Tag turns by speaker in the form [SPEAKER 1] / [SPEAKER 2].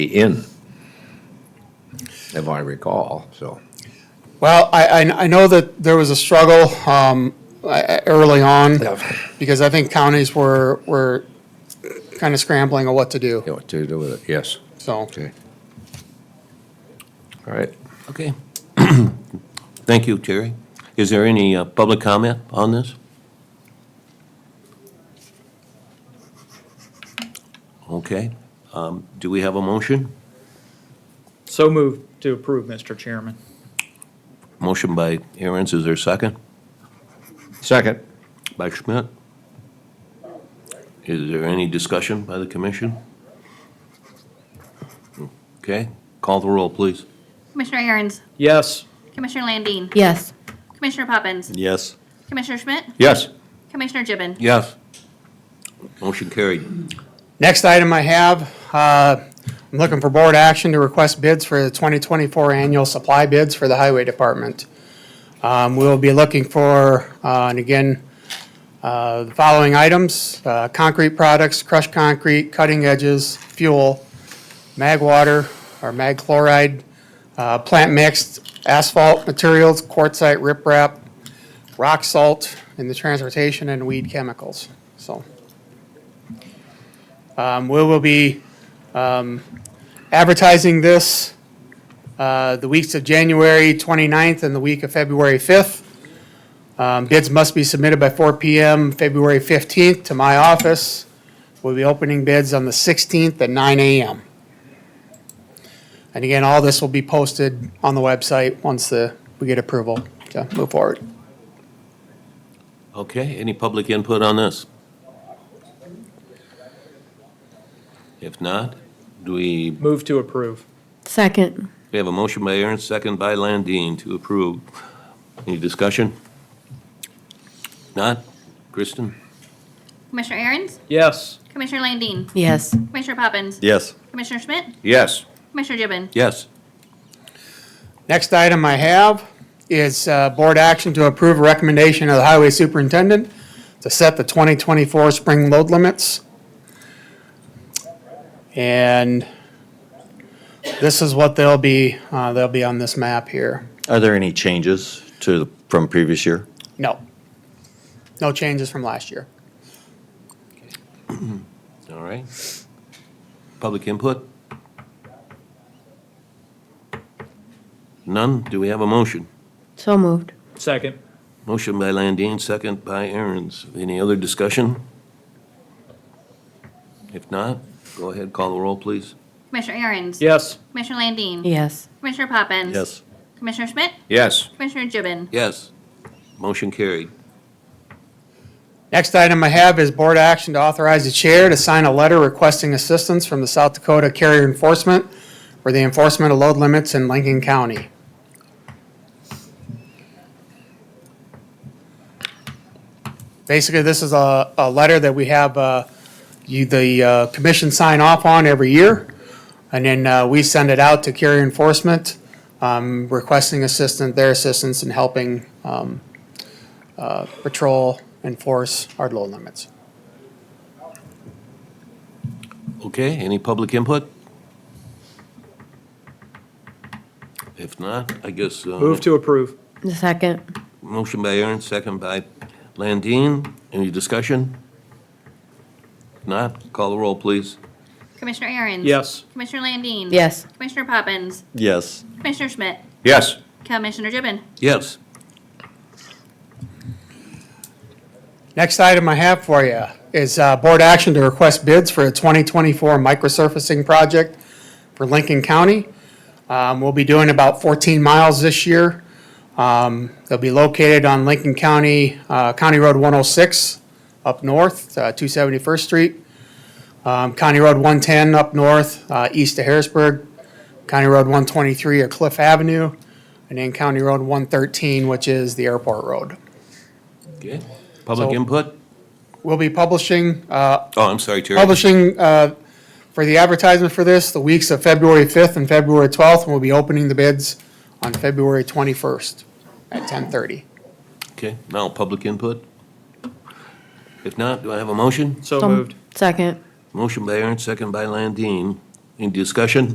[SPEAKER 1] in, if I recall, so.
[SPEAKER 2] Well, I, I, I know that there was a struggle, um, I- I- early on,
[SPEAKER 1] Yeah.
[SPEAKER 2] because I think counties were, were kind of scrambling on what to do,
[SPEAKER 1] You know, what to do with it, yes,
[SPEAKER 2] so.
[SPEAKER 1] okay. All right,
[SPEAKER 3] Okay. Thank you, Jerry. Is there any uh, public comment on this? Okay. um, Do we have a motion?
[SPEAKER 4] So moved to approve, Mr. Chairman.
[SPEAKER 3] Motion by Aaron's, is there a second?
[SPEAKER 1] second,
[SPEAKER 3] By Schmidt? Is there any discussion by the commission? Okay, call the roll, please.
[SPEAKER 5] Commissioner Aaron's,
[SPEAKER 4] Yes.
[SPEAKER 5] Commissioner Landine,
[SPEAKER 6] Yes.
[SPEAKER 5] Commissioner Poppins,
[SPEAKER 3] Yes.
[SPEAKER 5] Commissioner Schmidt,
[SPEAKER 1] yes,
[SPEAKER 5] Commissioner Gibbon.
[SPEAKER 3] Yes. Motion carried.
[SPEAKER 2] Next item I have, uh, I'm looking for board action to request bids for the 2024 annual supply bids for the Highway Department. Um, We'll be looking for, uh, and again, uh, the following items, uh, concrete products, crushed concrete, cutting edges, fuel, mag water or mag chloride, uh, plant mixed asphalt materials, quartzite riprap, rock salt, and the transportation and weed chemicals, so. Um, we will be, um, advertising this, uh, the weeks of January 29th and the week of February fifth. Um, bids must be submitted by four PM, February fifteenth to my office. We'll be opening bids on the sixteenth at nine AM. And again, all this will be posted on the website once the, we get approval to move forward.
[SPEAKER 3] Okay, any public input on this? If not, do we,
[SPEAKER 4] Move to approve.
[SPEAKER 6] Second.
[SPEAKER 3] we have a motion by Aaron, second by Landine to approve. Any discussion? Not? Kristen?
[SPEAKER 5] Commissioner Aaron's,
[SPEAKER 4] Yes.
[SPEAKER 5] Commissioner Landine,
[SPEAKER 6] Yes.
[SPEAKER 5] Commissioner Poppins,
[SPEAKER 3] Yes.
[SPEAKER 5] Commissioner Schmidt,
[SPEAKER 1] yes,
[SPEAKER 5] Commissioner Gibbon.
[SPEAKER 3] Yes.
[SPEAKER 2] Next item I have is uh, board action to approve a recommendation of the highway superintendent to set the 2024 spring load limits. And this is what they'll be, uh, they'll be on this map here.
[SPEAKER 7] Are there any changes to, from previous year?
[SPEAKER 2] No. No changes from last year.
[SPEAKER 3] All right. Public input? None? Do we have a motion?
[SPEAKER 6] So moved.
[SPEAKER 4] Second.
[SPEAKER 3] Motion by Landine, second by Aaron's. Any other discussion? If not, go ahead, call the roll, please.
[SPEAKER 5] Commissioner Aaron's,
[SPEAKER 4] Yes.
[SPEAKER 5] Commissioner Landine,
[SPEAKER 6] Yes.
[SPEAKER 5] Commissioner Poppins.
[SPEAKER 7] Yes.
[SPEAKER 5] Commissioner Schmidt,
[SPEAKER 1] yes,
[SPEAKER 5] Commissioner Gibbon.
[SPEAKER 3] Yes. Motion carried.
[SPEAKER 2] Next item I have is board action to authorize the chair to sign a letter requesting assistance from the South Dakota Carrier Enforcement for the enforcement of load limits in Lincoln County. Basically, this is a, a letter that we have, uh, you, the, uh, commission sign off on every year. And then, uh, we send it out to carrier enforcement, um, requesting assistance, their assistance in helping, um, patrol, enforce our load limits.
[SPEAKER 3] Okay, any public input? If not, I guess. uh,
[SPEAKER 4] Move to approve.
[SPEAKER 6] The second.
[SPEAKER 3] Motion by Aaron, second by Landine. Any discussion? If Not, call the roll, please.
[SPEAKER 5] Commissioner Aaron's.
[SPEAKER 4] Yes.
[SPEAKER 5] Commissioner Landine.
[SPEAKER 6] Yes.
[SPEAKER 5] Commissioner Poppins,
[SPEAKER 7] Yes.
[SPEAKER 5] Commissioner Schmidt,
[SPEAKER 1] yes,
[SPEAKER 5] Commissioner Gibbon.
[SPEAKER 3] Yes.
[SPEAKER 2] Next item I have for you is uh, board action to request bids for a 2024 microsurfacing project for Lincoln County. Um, We'll be doing about 14 miles this year. Um, They'll be located on Lincoln County, uh, County Road 106 up north, uh, 271st Street, um, County Road 110 up north, uh, east of Harrisburg, County Road 123 at Cliff Avenue, and then County Road 113, which is the airport road.
[SPEAKER 3] Okay. Public
[SPEAKER 2] So-
[SPEAKER 3] input?
[SPEAKER 2] We'll be publishing uh,
[SPEAKER 3] Oh, I'm sorry, Terry.
[SPEAKER 2] publishing uh, for the advertisement for this, the weeks of February 5th and February 12th, and we'll be opening the bids on February 21st at 10:30.
[SPEAKER 3] Okay, now public input? If not, do I have a motion?
[SPEAKER 4] So moved.
[SPEAKER 6] Second.
[SPEAKER 3] Motion by Aaron, second by Landine. Any discussion?